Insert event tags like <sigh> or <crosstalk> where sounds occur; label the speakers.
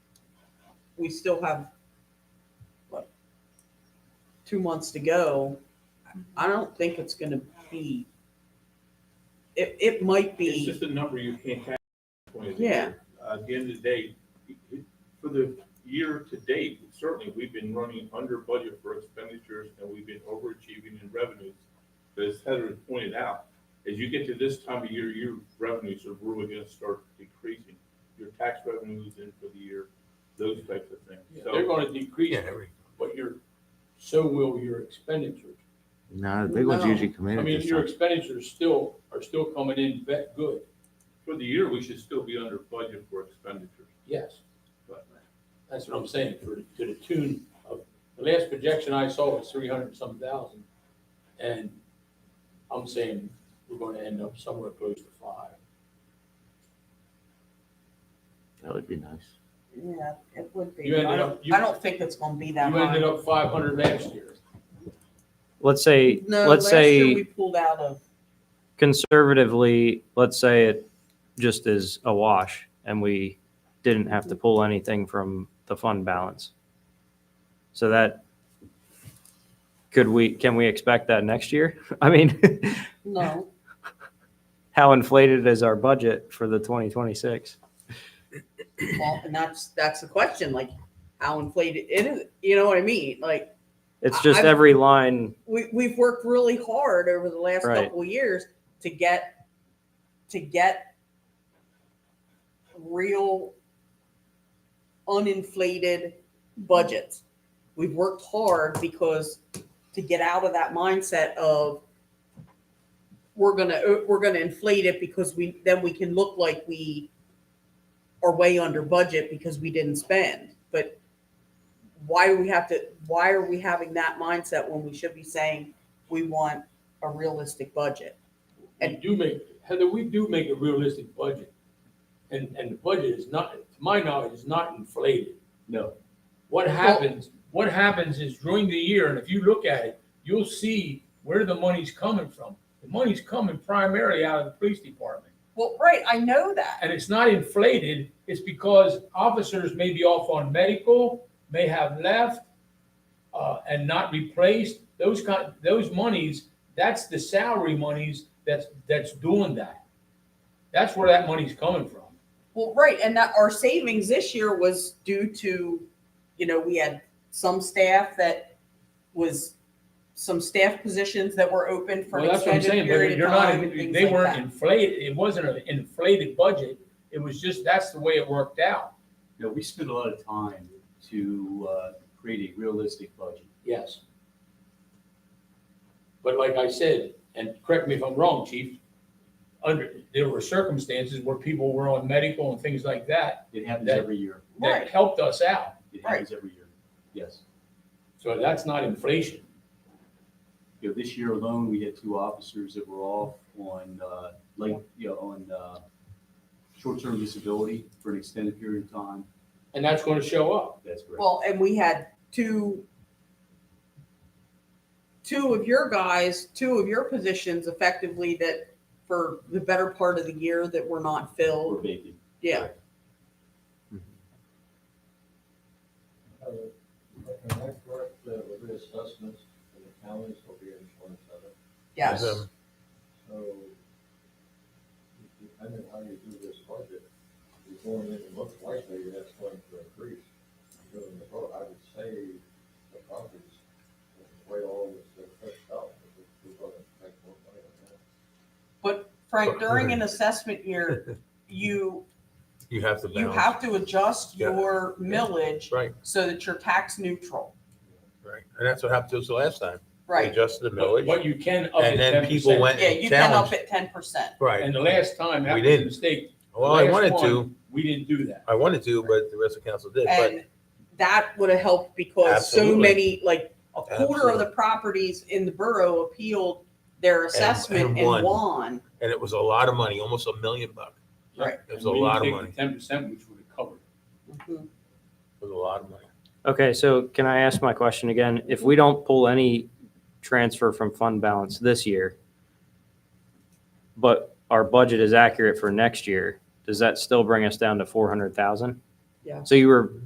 Speaker 1: we still have, what, two months to go, I don't think it's gonna be, it, it might
Speaker 2: It's
Speaker 1: be,
Speaker 2: just a number you can't have. when it's-
Speaker 1: Yeah.
Speaker 2: Uh, At the end of the day, for the year to date, certainly, we've been running under budget for expenditures and we've been overachieving in revenues. But as Heather pointed out, as you get to this time of year, your revenues are really gonna start decreasing. Your tax revenues in for the year, those types of things.
Speaker 3: They're
Speaker 2: So,
Speaker 3: gonna decrease,
Speaker 4: Yeah, there we go.
Speaker 3: but your, so will your expenditures.
Speaker 5: No, the big ones
Speaker 1: No.
Speaker 5: usually
Speaker 3: I
Speaker 5: committed.
Speaker 3: mean, your expenditures still, are still coming in vet good,
Speaker 2: for the year, we should still be under budget for expenditures.
Speaker 3: yes.
Speaker 2: But
Speaker 3: That's what I'm saying, for, to the tune of, the last projection I saw was three hundred and some thousand. And I'm saying we're gonna end up somewhere close to five.
Speaker 5: That would be nice.
Speaker 1: yeah, it would be.
Speaker 3: You ended
Speaker 1: I
Speaker 3: up-
Speaker 1: don't,
Speaker 3: you-
Speaker 1: I don't think it's gonna be that
Speaker 3: You ended
Speaker 1: high.
Speaker 3: up five hundred last year.
Speaker 6: Let's say,
Speaker 1: No,
Speaker 6: let's
Speaker 1: last year
Speaker 6: say
Speaker 1: We pulled out of,
Speaker 6: conservatively, let's say it just is a wash and we didn't have to pull anything from the fund balance. So that, could we, can we expect that next year? <laughs> I mean,
Speaker 1: no,
Speaker 6: how inflated is our budget for the 2026?
Speaker 1: well, and that's, that's the question, like, how inflated it is, you know what I mean? Like,
Speaker 6: It's just
Speaker 1: I-
Speaker 6: every line,
Speaker 1: we, we've worked really hard over the last
Speaker 6: Right.
Speaker 1: couple of years to get to get real uninflated budgets. We've worked hard because to get out of that mindset of we're gonna we're gonna inflate it because we then we can look like we are way under budget because we didn't spend. But why do we have to why are we having that mindset when we should be saying we want a realistic budget
Speaker 3: We do make, Heather, we do make a realistic budget. And, and the budget is not, to my knowledge, is not inflated.
Speaker 2: No.
Speaker 3: What happens, what happens is during the year, and if you look at it, you'll see where the money's coming from. The money's coming primarily out of the police department.
Speaker 1: well right i know that
Speaker 3: And it's not inflated, it's because officers may be off on medical, may have left, uh, and not replaced. Those kind, those monies, that's the salary monies that's, that's doing that. That's where that money's coming from.
Speaker 1: well right and that our savings this year was due to you know we had some staff that was some staff positions that were open for
Speaker 3: Well,
Speaker 1: an
Speaker 3: that's what I'm
Speaker 1: extended
Speaker 3: saying, but
Speaker 1: period
Speaker 3: you're
Speaker 1: of
Speaker 3: not,
Speaker 1: time and things
Speaker 3: they
Speaker 1: like
Speaker 3: weren't
Speaker 1: that.
Speaker 3: inflated, it wasn't an inflated budget. It was just, that's the way it worked out.
Speaker 7: No, we spent a lot of time to uh, create a realistic budget.
Speaker 3: Yes. But like I said, and correct me if I'm wrong, chief, under, there were circumstances where people were on medical and things like that,
Speaker 7: It happens
Speaker 3: That-
Speaker 7: every year.
Speaker 1: Right.
Speaker 3: that helped us out.
Speaker 7: It happens every year. Yes.
Speaker 3: So that's not inflation.
Speaker 7: You know, this year alone, we had two officers that were off on, uh, like, you know, on uh, short-term disability for an extended period of time.
Speaker 3: And that's gonna show up.
Speaker 7: That's correct.
Speaker 1: well and we had two two of your guys two of your positions effectively that for the better part of the year that were not filled
Speaker 7: Or vacant.
Speaker 1: Yeah,
Speaker 8: Uh, Am I correct that with reassessments, the counties will be insurance of it?
Speaker 1: yes.
Speaker 8: So depending how you do this budget, you're going to make it look likely that's going to increase. During the vote, I would say the properties, the way all this is pushed out, we're going to make more money on that.
Speaker 1: Frank, during an
Speaker 4: <laughs>
Speaker 1: assessment year, you,
Speaker 4: You have to
Speaker 1: you
Speaker 4: balance.
Speaker 1: have to adjust
Speaker 4: Yeah.
Speaker 1: your millage
Speaker 4: Right,
Speaker 1: so that you're tax neutral,
Speaker 4: right. And that's what happened to us the last time. We
Speaker 1: right?
Speaker 4: Adjusted the
Speaker 3: But
Speaker 4: millage
Speaker 3: but you can up it
Speaker 4: and
Speaker 3: ten
Speaker 4: then people
Speaker 3: percent.
Speaker 4: went
Speaker 1: Yeah, you
Speaker 4: and
Speaker 1: can up
Speaker 4: challenged.
Speaker 1: it ten percent.
Speaker 4: Right.
Speaker 3: And the last time, that
Speaker 4: We
Speaker 3: was a
Speaker 4: didn't.
Speaker 3: mistake.
Speaker 4: Well, I
Speaker 3: Last
Speaker 4: wanted
Speaker 3: one,
Speaker 4: to,
Speaker 3: We didn't do that.
Speaker 4: I wanted to, but the rest of council did. But
Speaker 1: And that would have helped because so
Speaker 4: Absolutely.
Speaker 1: many, like, a quarter of the properties in the borough appealed their assessment
Speaker 4: and
Speaker 1: and
Speaker 4: won.
Speaker 1: won.
Speaker 4: And it was a lot of money, almost a million bucks.
Speaker 1: Right.
Speaker 4: It was a lot of money.
Speaker 3: Ten percent, which would have covered.
Speaker 1: Mhm.
Speaker 4: It was a lot of money.
Speaker 6: Okay, so can I ask my question again? If we don't pull any transfer from fund balance this year, but our budget is accurate for next year, does that still bring us down to four hundred thousand?
Speaker 1: Yeah.
Speaker 6: So you were